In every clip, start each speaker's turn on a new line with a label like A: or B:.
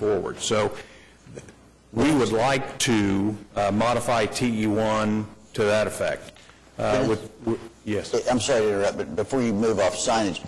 A: forward. So we would like to uh, modify TE1 to that effect. Uh,
B: Dennis?
A: with- with- Yes.
B: I'm sorry to interrupt, but before you move off signage,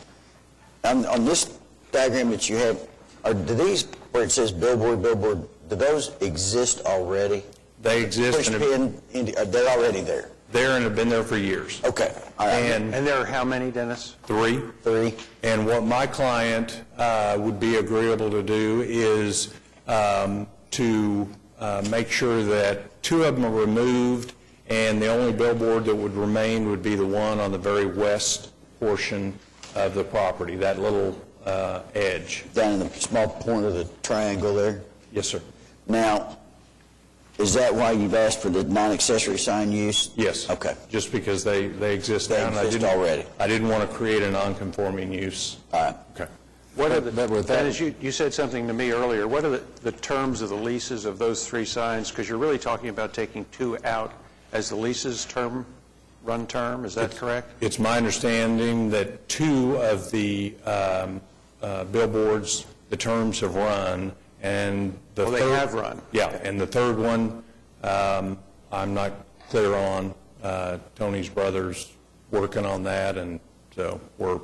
B: on, on this diagram that you have, are, do these, where it says billboard, billboard, do those exist already?
A: They exist,
B: Push
A: and have-
B: pin, indi- uh, they're already there?
A: they're, and have been there for years.
B: Okay, all right.
A: And
C: And there are how many, Dennis?
A: three.
B: Three,
A: And what my client uh, would be agreeable to do is um, to uh, make sure that two of them are removed, and the only billboard that would remain would be the one on the very west portion of the property, that little uh, edge.
B: down in the small corner of the triangle there.
A: Yes, sir.
B: Now, is that why you've asked for the non-accessory sign use?
A: Yes.
B: Okay,
A: Just because they, they exist
B: They
A: now. and I
B: exist
A: didn't-
B: already.
A: I didn't want to create a non-conforming use.
B: all right.
A: Okay.
C: What are the,
D: But with that-
C: Dennis, you, you said something to me earlier. What are the, the terms of the leases of those three signs? Because you're really talking about taking two out as the leases term, run term, is that correct?
A: It's my understanding that two of the um, uh, billboards, the terms have run, and the
C: Well,
A: third...
C: they have run.
A: Yeah, and the third one, um, I'm not clear on. Uh, Tony's brother's working on that, and so we're,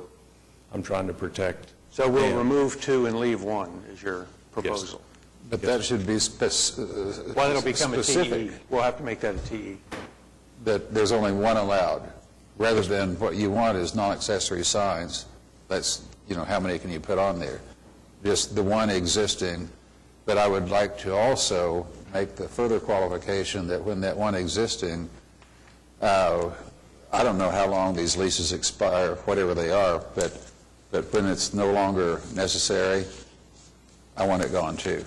A: I'm trying to protect...
C: So we'll
A: them.
C: remove two and leave one, is your proposal?
D: But that should be spec- uh,
C: Well, it'll become a TE.
D: specific,
C: We'll have to make that a E. TE.
D: that there's only one allowed, rather than what you want is non-accessory signs. That's, you know, how many can you put on there? Just the one existing, but I would like to also make the further qualification that when that one existing, uh, I don't know how long these leases expire, whatever they are, but, but when it's no longer necessary, I want it gone too.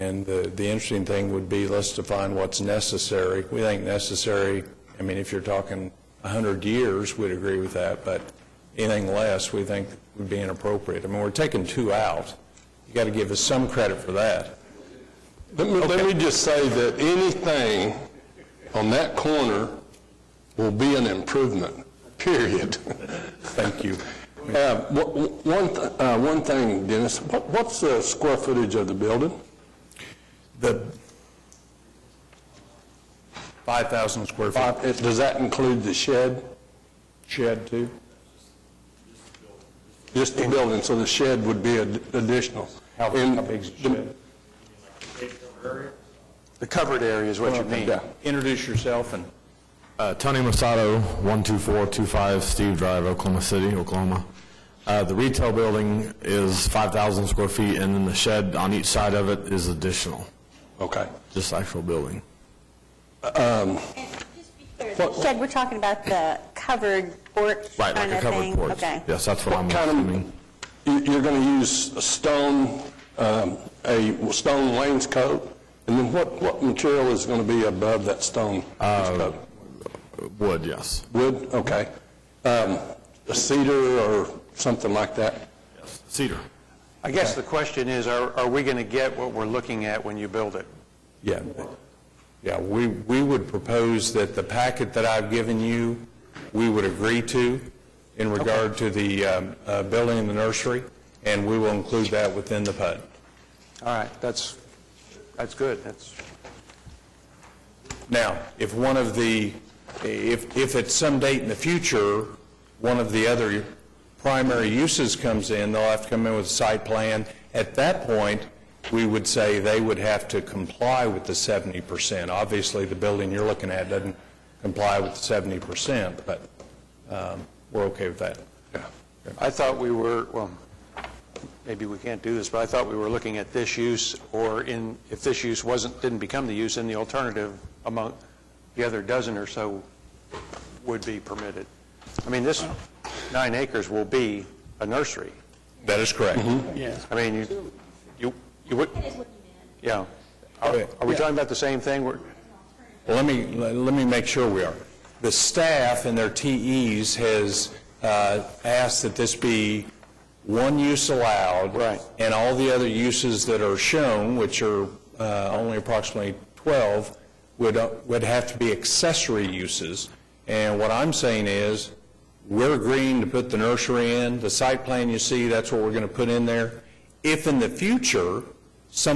A: And the, the interesting thing would be, let's define what's necessary. We think necessary, I mean, if you're talking 100 years, we'd agree with that, but anything less, we think would be inappropriate. I mean, we're taking two out. You got to give us some credit for that.
E: Let me, let me just say that anything on that corner will be an improvement, period.
A: Thank you.
E: Uh, wh- wh- One, th- uh, one thing, Dennis, what- what's the square footage of the building?
A: The 5,000 square foot
E: Five- Uh, Does that include the shed?
A: shed, too?
E: Just the building, so the shed would be ad- additional.
A: How
E: And
A: how big's the shed?
C: The covered area is what you mean.
E: Yeah.
A: Introduce yourself and...
F: Uh, Tony Masato, 12425 Steve Drive, Oklahoma City, Oklahoma. Uh, The retail building is 5,000 square feet, and then the shed on each side of it is additional,
E: Okay.
F: just actual building.
G: And just to be clear, the Shed, we're talking about the covered porch
F: Right, like
G: kind of thing?
F: a covered porch.
G: Okay.
F: Yes, that's what I'm
E: Kind of-
F: assuming.
E: you- You're going to use a stone, um, a stone wainscot, and then what, what material is going to be above that stone
A: Uh,
E: wainscot?
F: Wood, yes.
E: Wood, okay. Um, a Cedar or something like that?
F: Cedar.
C: I guess the question is, are, are we going to get what we're looking at when you build it?
A: Yeah, yeah, we, we would propose that the packet that I've given you, we would agree to in regard to the um, uh, building and the nursery, and we will include that within the PUD.
C: All right, that's, that's good, that's...
A: Now, if one of the, if, if at some date in the future, one of the other primary uses comes in, they'll have to come in with a site plan. At that point, we would say they would have to comply with the 70%. Obviously, the building you're looking at doesn't comply with the 70%, but um, we're okay with that.
C: I thought we were, well, maybe we can't do this, but I thought we were looking at this use, or in, if this use wasn't, didn't become the use, then the alternative among the other dozen or so would be permitted. I mean, this nine acres will be a nursery.
A: That is correct.
C: I mean, you, you, you would,
G: That is what you meant.
C: yeah. Are
A: Okay.
C: are we talking about the same thing? We're-
A: Well, Let me, let let me make sure we are. The staff and their TEs has uh, asked that this be one use allowed.
C: Right.
A: And all the other uses that are shown, which are uh, only approximately 12, would, uh, would have to be accessory uses. And what I'm saying is, we're agreeing to put the nursery in, the site plan you see, that's what we're going to put in there. If in the future,